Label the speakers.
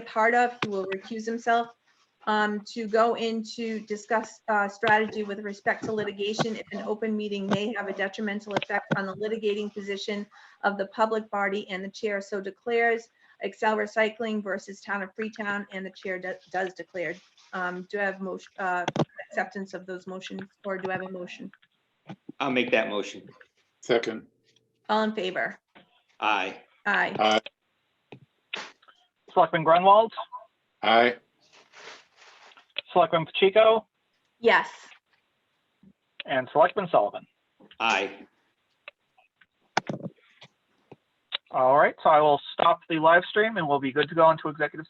Speaker 1: part of, he will recuse himself, um, to go into discuss, uh, strategy with respect to litigation if an open meeting may have a detrimental effect on the litigating position of the public body and the chair so declares Excel Recycling versus Town of Freetown and the chair do- does declare. Um, do I have motion, uh, acceptance of those motions or do I have a motion?
Speaker 2: I'll make that motion.
Speaker 3: Second,
Speaker 1: All in favor?
Speaker 2: Aye.
Speaker 1: Aye.
Speaker 4: Selectman Grunwald,
Speaker 3: aye,
Speaker 4: Selectman Pacheco,
Speaker 1: Yes.
Speaker 4: and Selectman Sullivan.
Speaker 2: Aye.
Speaker 4: All right, so I will stop the live stream and we'll be good to go into executive